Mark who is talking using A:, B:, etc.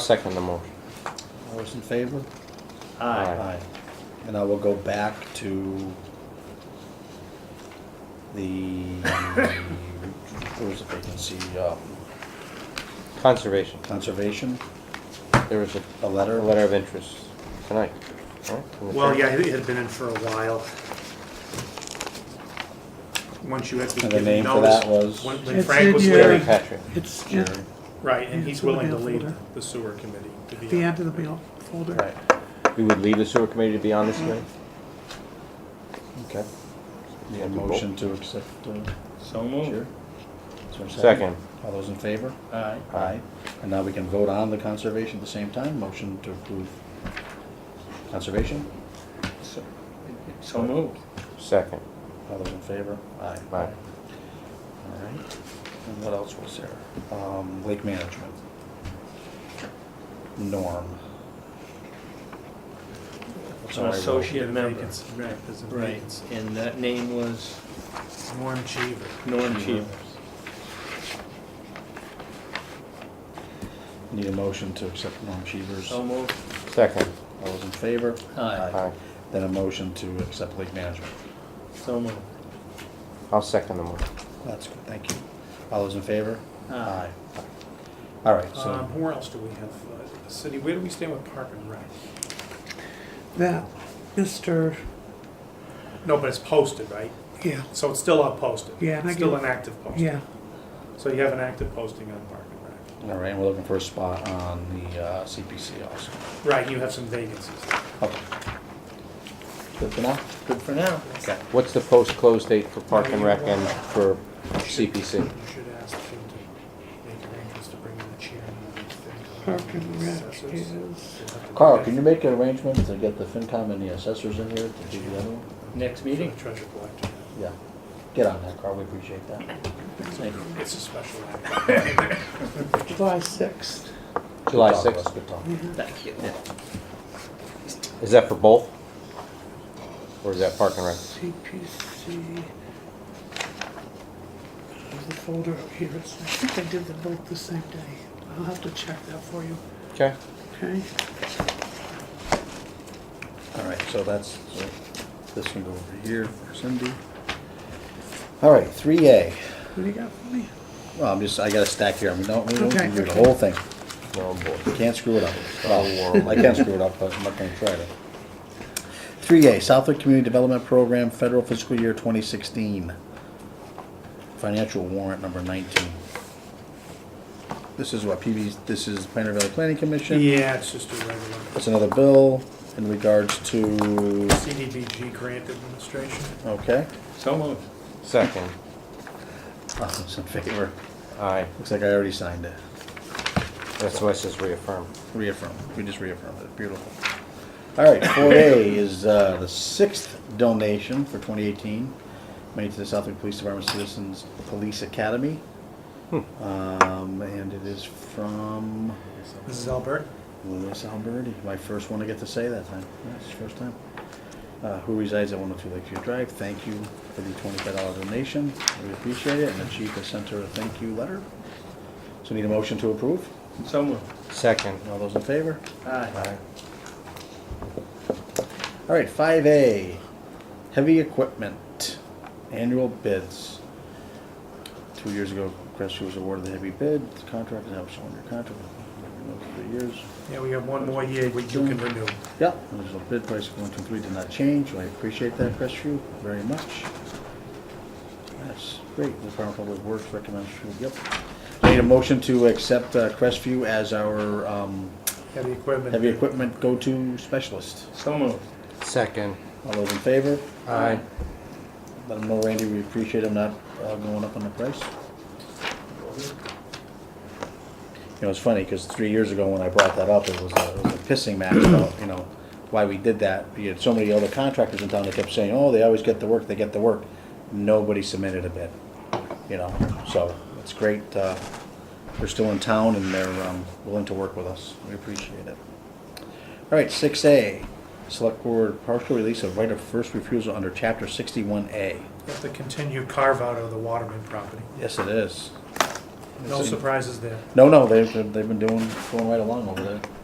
A: Second the motion.
B: All those in favor?
A: Aye.
B: And I will go back to the, what was the vacancy, uh,
A: Conservation,
B: conservation,
A: there was a
B: a
A: a
B: letter?
A: letter of interest tonight. right? From the
C: Well,
A: chair.
C: yeah, it had been in for a while. Once you had been
B: And the
C: given
B: name for that was?
C: notice. When when
D: It's
C: Frank
D: in
C: was
D: your-
A: Jerry
C: leaving,
A: Patrick.
D: It's at
C: right, and
D: Yeah,
C: he's
D: it's in the
C: willing to
D: mail
C: leave
D: folder.
C: the sewer committee to be.
D: the
C: on.
D: end of the mail folder.
B: Right,
A: We would leave the sewer committee to be on this committee? Okay.
B: need a motion to accept, uh,
E: So
B: chair?
E: moved.
B: Is there a
A: Second.
B: All those in favor?
E: Aye.
B: Aye. And now we can vote on the conservation at the same time, motion to approve conservation,
E: So- So moved.
A: Second.
B: all those in favor? Aye.
A: Aye.
B: All right, and what else was there? Um, lake management. Norm. That's all I
E: An
B: wrote.
E: associate member.
C: Vacancy, Right, there's a
E: Right,
C: vacancy.
E: and that name was
C: Norm Cheever.
E: Norm Cheever.
B: Need a motion to accept Norm Cheever's.
E: So moved.
A: Second.
B: All those in favor?
E: Aye.
A: Aye.
B: Then a motion to accept lake management.
E: So moved.
A: I'll second the motion.
B: That's good, thank you. All those in favor?
E: Aye.
B: All right,
C: Um,
B: so,
C: where else do we have, uh, the city, where do we stand with Park and Rec?
D: That, Mr.,
C: No, but it's posted, right?
D: yeah,
C: So it's still up posted?
D: Yeah, and I
C: It's Still
D: give-
C: an active posting?
D: yeah,
C: So you have an active posting on Park and Rec?
B: all right, and we're looking for a spot on the uh, CPC also.
C: Right, you have some vacancies.
B: Okay. Good for now?
E: Good for now.
B: Okay.
A: What's the post-close date for Park and Rec and for CPC?
C: You should ask him to make arrangements to bring in the chair and everything.
D: Park and Rec
C: Assessors.
D: is,
C: We'll have to-
B: Carl, can you make an arrangement to get the FinCom and the assessors in here to do the other one?
E: Next
C: For the
E: meeting?
C: treasure collector.
B: Yeah. Get on that, Carl, we appreciate that. Thank you.
C: It's a special act.
D: July 6th.
A: July
B: Good talk,
A: 6th.
B: Russ, Good talk.
E: Thank you.
A: Is that for both? Or is that Park and Rec?
D: CPC. There's the folder up here. It's- I think I did them both the same day. I'll have to check that for you,
A: Okay.
D: okay?
B: All right, so that's, so this can go over here for Cindy. All right, three A.
D: What do you got for me?
B: Well, I'm just, I got a stack here, I'm not, we don't
D: Okay,
B: do the
D: okay.
B: whole thing.
A: Oh, boy.
B: Can't screw it up.
A: Oh, world.
B: Well, I can screw it up, but I'm not gonna try to. Three A, Southwick Community Development Program, federal fiscal year twenty sixteen. Financial warrant number nineteen. This is what PB, this is Pioneer Valley Planning Commission.
C: Yeah, it's just a regular
B: It's another bill in regards to,
C: CDBG grant administration.
B: okay,
E: So moved.
A: Second.
B: all those Oh, in favor?
A: Aye.
B: Looks like I already signed it.
A: That's why it says reaffirm.
B: Reaffirm, we just reaffirmed it, beautiful. All right, four A is uh, the sixth donation for twenty eighteen, made to the Southwick Police Department Citizens Police Academy. Um, and it is from
C: Mrs. Albert?
B: Louis Alberti, my first one to get to say that time, that's his first time. Uh, who resides at one oh two Lakeview Drive, thank you for the twenty-five dollar donation, we appreciate it, and the chief has sent her a thank you letter. So need a motion to approve,
E: So moved.
A: Second.
B: all those in favor?
E: Aye.
B: All right, five A, heavy equipment, annual bids. Two years ago, Crestview was awarded the heavy bid, the contract is now still under contract, for three years.
C: Yeah, we have one more year we you can renew.
B: Yep, there's a bid price of one, two, three, did not change, so I appreciate that, Crestview, very much. That's great, the Department of Public Works recommends, yep. Need a motion to accept uh, Crestview as our um,
C: Heavy equipment.
B: heavy equipment go-to specialist.
E: So moved.
A: Second.
B: All those in favor?
A: Aye.
B: Let them know, Randy, we appreciate them not uh, going up on the price. You know, it's funny, because three years ago when I brought that up, it was a it was a pissing match about, you know, why we did that. You had so many other contractors in town that kept saying, oh, they always get the work, they get the work. Nobody submitted a bid, you know, so it's great. uh, They're still in town and they're um, willing to work with us. We appreciate it. All right, six A, select board partial release of right of first refusal under chapter sixty-one A.
C: That's the continued carve-out of the Waterman property.
B: Yes, it is.
C: No surprises there.
B: No, no, they've, they've been doing, going right along over there.